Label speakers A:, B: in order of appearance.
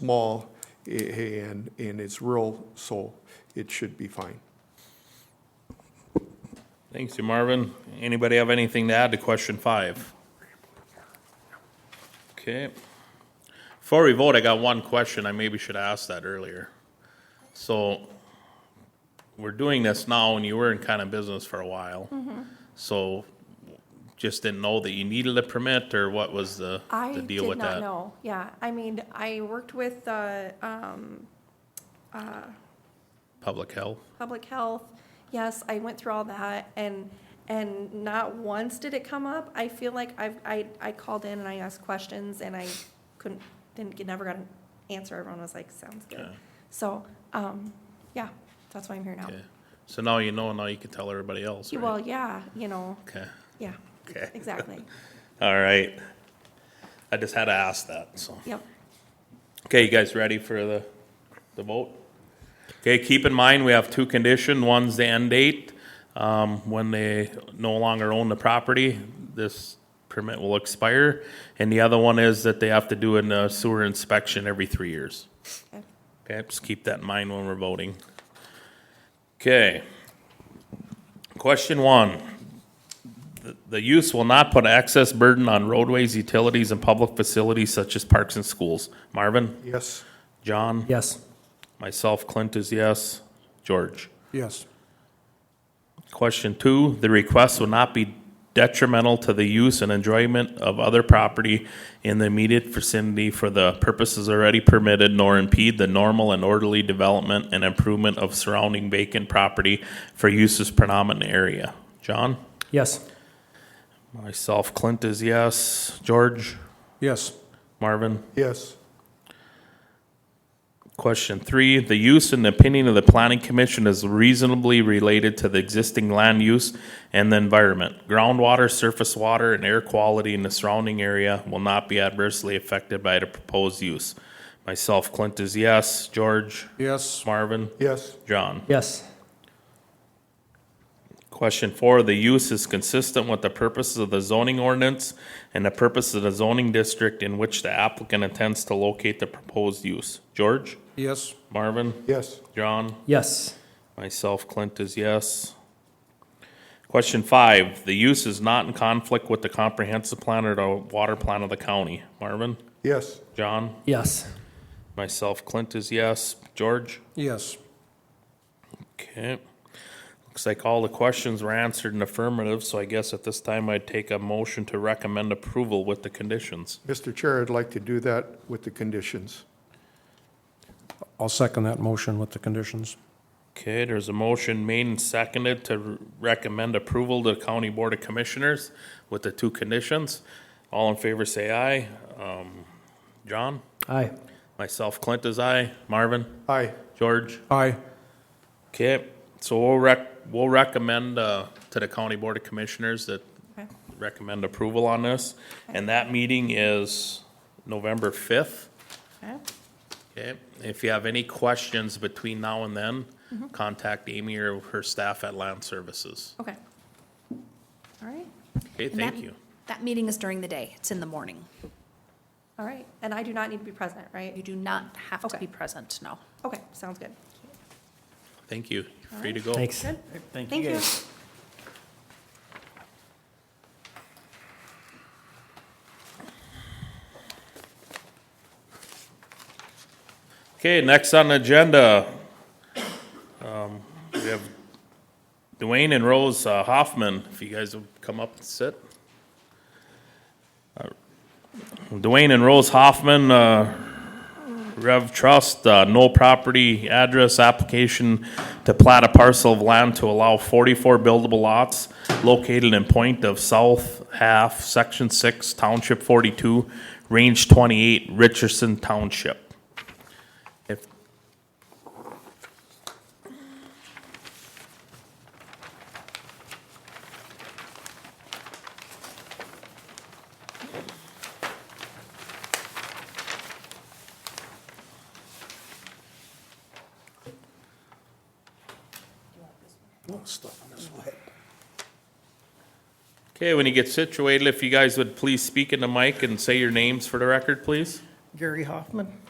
A: small a- and, and it's real, so it should be fine.
B: Thanks, you Marvin. Anybody have anything to add to question five? Okay. Before we vote, I got one question. I maybe should ask that earlier. So we're doing this now and you were in kind of business for a while.
C: Mm-hmm.
B: So just didn't know that you needed a permit or what was the,
C: I
B: the
C: did
B: deal with
C: not
B: that?
C: know. Yeah, I mean, I worked with the um,
B: Public health?
C: public health. Yes, I went through all that, and and not once did it come up. I feel like I've I, I called in and I asked questions, and I couldn't didn't get, never got an answer. Everyone was like, "Sounds good."
B: Okay.
C: So, um, yeah, that's why I'm here now.
B: Okay. So now you know, now you can tell everybody else,
C: Well,
B: right?
C: yeah, you know,
B: Okay,
C: yeah,
B: okay.
C: exactly.
B: All right. I just had to ask that, so.
C: yep.
B: Okay, you guys ready for the, the vote? Okay, keep in mind, we have two conditions. One's the end date, um, when they no longer own the property, this permit will expire. And the other one is that they have to do a sewer inspection every three years.
C: Okay.
B: Okay, just keep that in mind when we're voting. Okay. Question one. The- The use will not put excess burden on roadways, utilities, and public facilities such as parks and schools. Marvin?
A: Yes?
B: John?
D: Yes.
B: Myself, Clint is yes. George?
A: Yes.
B: Question two, the request will not be detrimental to the use and enjoyment of other property in the immediate vicinity for the purposes already permitted nor impede the normal and orderly development and improvement of surrounding vacant property for uses predominant area. John?
D: Yes.
B: Myself, Clint is yes. George?
A: Yes.
B: Marvin?
A: Yes.
B: Question three, the use and opinion of the planning commission is reasonably related to the existing land use and the environment. Groundwater, surface water, and air quality in the surrounding area will not be adversely affected by the proposed use. Myself, Clint is yes. George?
A: Yes.
B: Marvin?
A: Yes.
B: John?
D: Yes.
B: Question four, the use is consistent with the purposes of the zoning ordinance and the purpose of the zoning district in which the applicant intends to locate the proposed use. George?
A: Yes.
B: Marvin?
A: Yes.
B: John?
D: Yes.
B: Myself, Clint is yes. Question five, the use is not in conflict with the comprehensive plan or the water plan of the county. Marvin?
A: Yes.
B: John?
D: Yes.
B: Myself, Clint is yes. George?
A: Yes.
B: Okay. Looks like all the questions were answered in affirmative, so I guess at this time I'd take a motion to recommend approval with the conditions.
A: Mr. Chair, I'd like to do that with the conditions.
E: I'll second that motion with the conditions.
B: Okay, there's a motion made and seconded to recommend approval to the County Board of Commissioners with the two conditions. All in favor, say aye. Um, John?
D: Aye.
B: Myself, Clint is aye. Marvin?
A: Aye.
B: George?
E: Aye.
B: Okay, so we'll rec, we'll recommend, uh, to the County Board of Commissioners that
C: Okay.
B: recommend approval on this. And that meeting is November fifth.
C: Okay.
B: Okay, if you have any questions between now and then, contact Amy or her staff at Land Services.
C: Okay. All right.
B: Okay,
F: And that-
B: thank you.
F: That meeting is during the day. It's in the morning.
C: All right. And I do not need to be present,
F: You
C: right?
F: do not have to
C: Okay.
F: be present, no.
C: Okay. Sounds good.
B: Thank you. You're Free to go.
D: Thanks.
C: Good.
D: Thank
C: Thank you.
B: Okay, next on the agenda, um, we have Dwayne and Rose uh, Hoffman, if you guys will come up and sit. Uh, Dwayne and Rose Hoffman, uh, Rev Trust, uh, no property address application to plat a parcel of land to allow forty-four buildable lots located in point of south half, section six, township forty-two, range twenty-eight, Richardson Township. If, okay, when you get situated, if you guys would please speak in the mic and say your names for the record, please.
G: Gary Hoffman,